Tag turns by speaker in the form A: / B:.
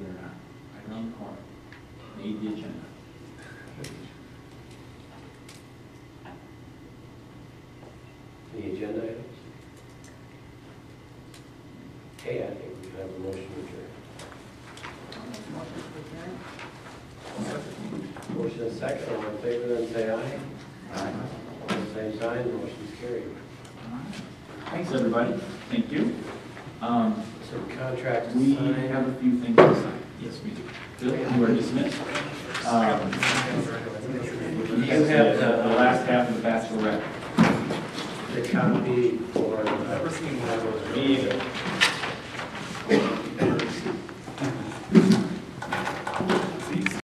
A: Read the agenda.
B: Any agenda items? Okay, I think we have a motion to adjourn. Motion is second, all in favor, then say aye. All the same sign, motion's carried.
A: Thanks, everybody. Thank you. Um,
B: Some contracts
A: We
B: to
A: have
B: sign.
A: a few things to sign. Yes, we do. Bill, you are dismissed. Um, You have the
B: uh,
A: the last half of the bachelorette.
B: The copy for. uh,
A: Me either.